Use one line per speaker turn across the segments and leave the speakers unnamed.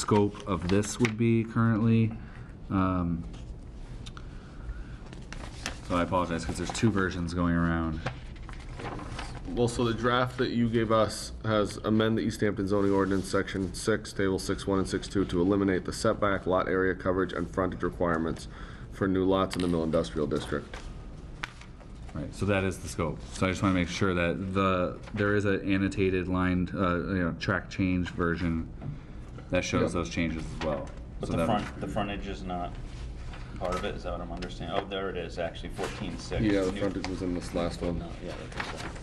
scope of this would be currently. Um, So I apologize, because there's two versions going around.
Well, so the draft that you gave us has amend the East Hampton zoning ordinance, section six, table six one and six two, to eliminate the setback, lot area coverage, and frontage requirements for new lots in the mill industrial district.
Right, so that is the scope. So I just want to make sure that the, there is an annotated lined, uh, you know, track change version that shows
Yep.
those changes as well.
But
So
the
that-
front, the frontage is not part of it, is that what I'm understanding? Oh, there it is, actually, fourteen six.
Yeah, the frontage was in this last one.
No, yeah, that's the one.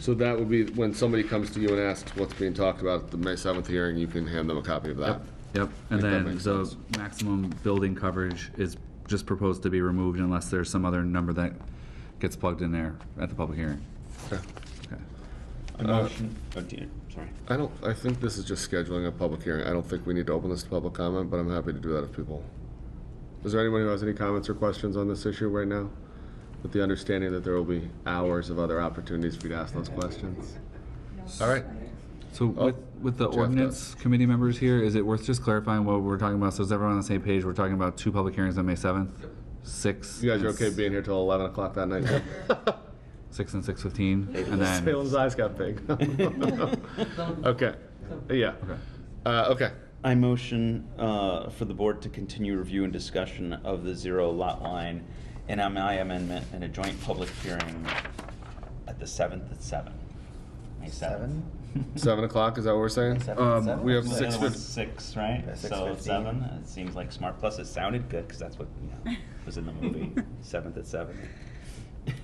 So that would be, when somebody comes to you and asks what's being talked about at the May seventh hearing, you can hand them a copy of that.
Yep, and
If that
then
makes
the
sense.
maximum building coverage is just proposed to be removed unless there's some other number that gets plugged in there at the public hearing. Okay.
A motion, oh, dear, sorry.
I don't, I think this is just scheduling a public hearing. I don't think we need to open this to public comment, but I'm happy to do that if people. Is there anyone who has any comments or questions on this issue right now? With the understanding that there will be hours of other opportunities for you to ask those questions. All right.
So with, with the
Oh, Jeff does.
ordinance committee members here, is it worth just clarifying what we're talking about? So is everyone on the same page? We're talking about two public hearings on May 7th? Six?
You guys are
and
okay
s-
being here till 11 o'clock that night?
Six and 6:15? And then,
Salem's eyes got big. Okay, yeah.
Okay.
Uh, okay,
I motion, uh, for the board to continue review and discussion of the zero lot line and MI amendment in a joint public hearing at the seventh at seven. May seventh.
seven o'clock, is that what we're saying?
um,
We have
The
six
other one's
fif-
Six, right?
Yeah,
So
6:15.
it's seven, it seems like smart, plus it sounded good, because that's what, you know, was in the movie, seventh at seven.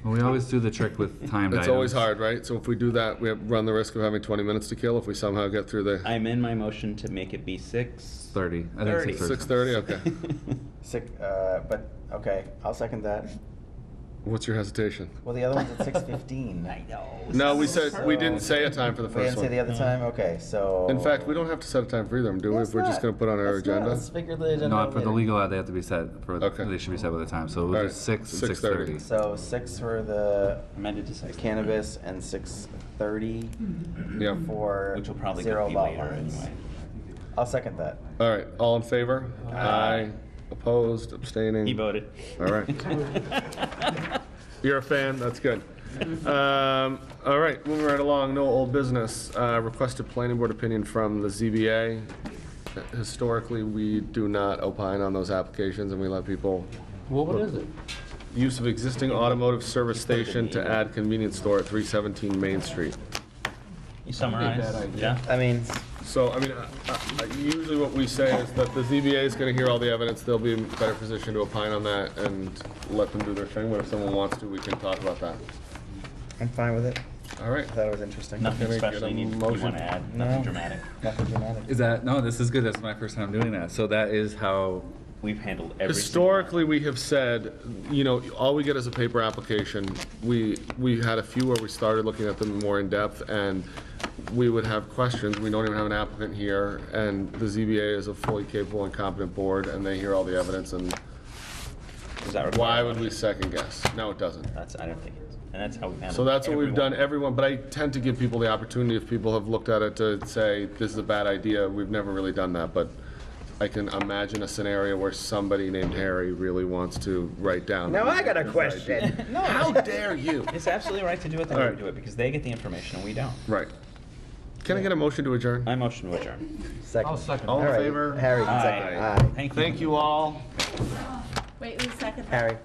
well, we always do the trick with timed items.
It's always hard, right? So if we do that, we have- run the risk of having 20 minutes to kill if we somehow get through the
I'm in my motion to make it be six.
30, I think
30.
6:30.
6:30, okay.
Six, uh, but, okay, I'll second that.
What's your hesitation?
Well, the other one's at six fifteen.
I know.
No, we
So-
said, we didn't say a time for the
We didn't
first
say the
one.
other time, okay, so.
In fact, we don't have to set a time for either of them, do we? If we're just gonna put on our agenda?
Let's figure the agenda
No, for the
later.
legal ad, they have to be set, for,
Okay.
they should be set with a time, so we'll do
Alright,
six and
6:30.
6:30.
So six for the
Amended to six.
cannabis and six thirty
Yeah.
for
Which will probably
zero
be
lot
later
lines.
anyway.
I'll second that.
All right, all in favor? Aye. Opposed, abstaining?
He voted.
All right. You're a fan, that's good. Um, all right, moving right along, no old business. Uh, requested planning board opinion from the ZBA. Historically, we do not opine on those applications and we let people.
Well, what is it?
Use of existing automotive service station to add convenience store at 317 Main Street.
You summarized, yeah?
I mean,
So, I mean, I- I- usually what we say is that the ZBA is gonna hear all the evidence, they'll be in better position to opine on that and let them do their thing, but if someone wants to, we can talk about that.
I'm fine with it.
All right,
I thought it was interesting.
Can
Nothing
I get
special
a
you need, you
motion?
wanna add, nothing
No.
dramatic.
Nothing dramatic.
Is that, no, this is good, that's my first time doing that, so that is how,
We've handled every. single one.
historically, we have said, you know, all we get is a paper application. We, we had a few where we started looking at them more in depth, and we would have questions, we don't even have an applicant here, and the ZBA is a fully capable and competent board, and they hear all the evidence, and
Does that require
why
a
would we
motion?
second guess? No, it doesn't.
That's, I don't think it's, and that's how we've handled.
So that's what we've done, everyone,
everyone.
but I tend to give people the opportunity, if people have looked at it, to say, this is a bad idea, we've never really done that, but I can imagine a scenario where somebody named Harry really wants to write down.
Now I got a question.
How dare you?
It's absolutely right to do it the
All
way we
right.
do it, because they get the information and we don't.
Right. Can I get a motion to adjourn?
I motion to adjourn.
Second.
I'll second.
All in
All right,
favor?
Harry, can
Aye.
second. Aye.
Thank you.
Thank you all.
Wait, who's second?
Harry.